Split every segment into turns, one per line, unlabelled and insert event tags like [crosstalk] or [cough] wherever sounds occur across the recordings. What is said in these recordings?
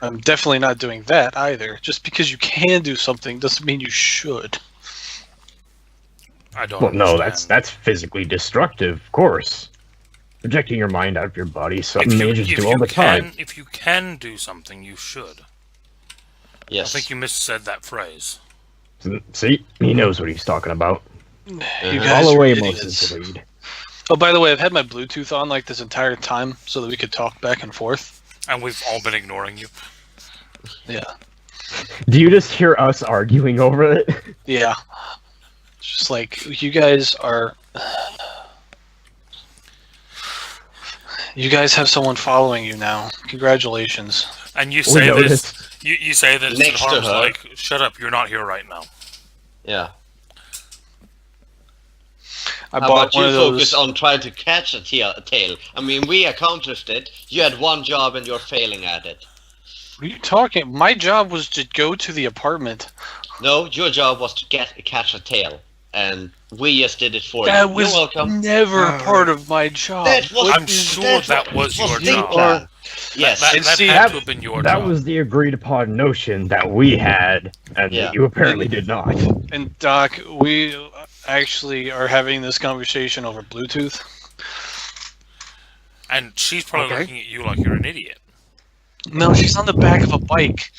I'm definitely not doing that either. Just because you can do something doesn't mean you should.
I don't.
Well, no, that's
understand.
that's physically destructive, of course. Projecting your mind out of your body, is something mages
if
do all the
can,
time.
If you can do something, you should. I
Yes.
think you missaid that phrase.
See, he knows what he's talking about.
You
Uh-huh.
guys
Follow
are
Amos's
idiots.
lead.
Oh, by the way, I've had my Bluetooth on like this entire time so that we could talk back and forth.
And we've all been ignoring you.
Yeah,
Do you just hear us arguing over it?
yeah. It's just like you guys are. [sighs] You guys have someone following you now. Congratulations.
And you
We
say this.
noticed.
You, you say this. And
Next to
Harm's
her.
like, shut up! You're not here right now.
Yeah.
I
How
bought
about
one
you
of those.
focus on trying to catch a tail, tail? I mean, we accomplished it. You had one job and you're failing at it.
What are you talking? My job was to go to the apartment.
No, your job was to get catch a tail, and we just did it for
That
you.
was
You're welcome.
never
Oh.
part of my job.
That was,
I'm sure that was your
the
job.
plan. Yes.
That,
And
that
see,
had
that-
to have been your
That
job.
was the agreed upon notion that we had, and
Yeah.
that you apparently did not.
And Doc, we actually are having this conversation over Bluetooth.
And she's probably
Okay.
looking at you like you're an idiot.
No, she's on the back of a bike.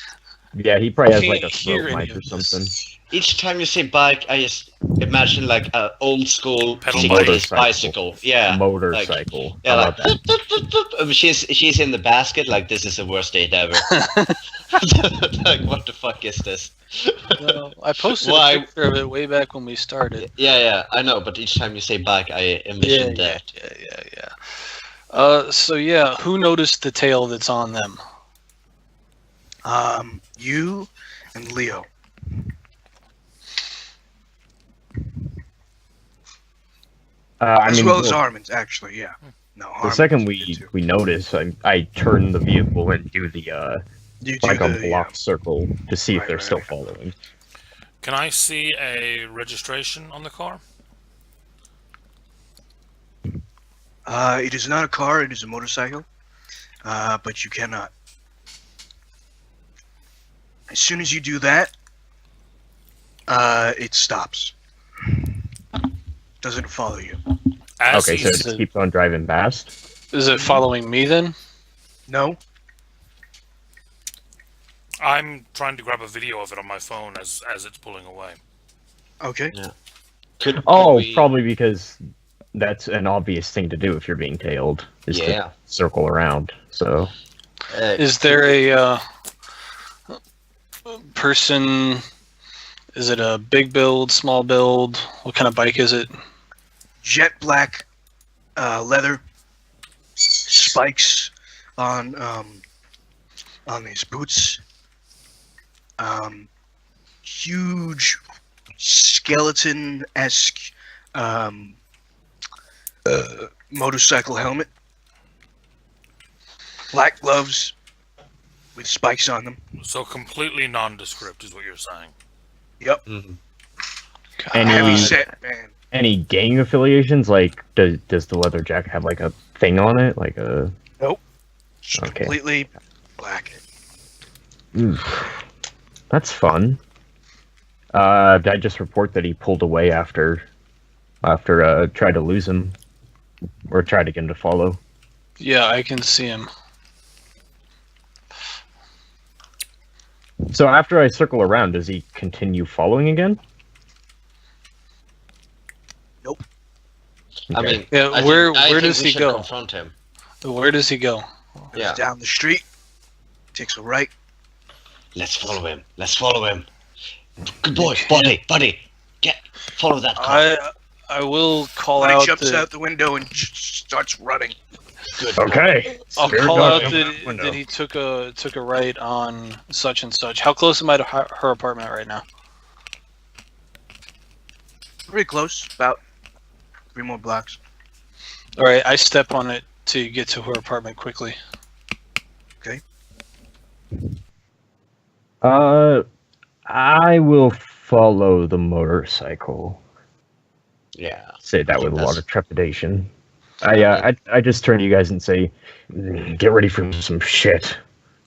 Yeah, he probably has like a
Can't hear
throat
any
mic
of
or
this.
something.
Each time you say bike, I just imagine like an old school
Pedal
60s
motorcycle.
bicycle. Yeah.
Motorcycle.
Yeah,
How
like,
about that?
Um, she's she's in the basket like this is the worst
[laughs]
date ever. [laughs] like what the fuck is this?
Well, I posted
Why-
a picture of it way back when we started.
Yeah, yeah, I know, but each time you say bike, I envision
yeah,
that.
yeah, yeah, yeah. Uh, so yeah, who noticed the tail that's on them?
Um, you and Leo.
Uh, I
as
mean,
well as
the,
Armin's, actually, yeah. No,
the
Armin's
second
did
we
too.
we notice, I, I turn the vehicle and do the uh,
You do
like a
the,
block circle to see if
Right,
they're
right,
still
right.
following.
Can I see a registration on the car?
Uh, it is not a car, it is a motorcycle. Uh, but you cannot. As soon as you do that, uh, it stops. Doesn't follow you.
As
okay, so
he's-
it
uh,
just keeps on driving past.
Is it following me then?
No?
I'm trying to grab a video of it on my phone as as it's pulling away.
Okay.
Could, could
Oh,
we-
probably because that's an obvious thing to do if you're being tailed is
Yeah.
to circle around. So
Uh,
Is there a uh, person? Is it a big build, small build? What kind of bike is it?
Jet black uh, leather spikes on um, on these boots. Um, huge skeleton esque um, uh, motorcycle helmet. Black gloves with spikes on them.
So completely nondescript is what you're saying.
mhm.
God.
Any-
Heavy set man.
any gang affiliations? Like, does does the leather jacket have like a thing on it? Like a
Just
Okay.
Completely black.
Oof. That's fun. Uh, did I just report that he pulled away after, after uh, tried to lose him, or tried to get him to follow.
Yeah, I can see him.
So after I circle around, does he continue following again?
Nope.
I
Okay.
mean,
Yeah,
I think-
where
I
where
think
does
we
he
should
go?
Confront him.
Where does he go?
Yeah,
Down the street. Takes a right.
let's follow him. Let's follow him. Good boy, buddy, buddy. Get follow that car.
I I will call
When he
out.
Um, jumps
that-
out the window and j- starts running.
Good.
okay.
I'll
Spirit
call
dog
out
jump
that,
out window.
that he took a took a right on such and such. How close am I to her, her apartment right now?
Pretty close. About three more blocks.
All right, I step on it to get to her apartment quickly.
Uh, I will follow the motorcycle.
Yeah.
Say that
think
with a
that's-
lot of trepidation. I, uh, I I just turn to you guys and say, "Mm, get ready for some shit.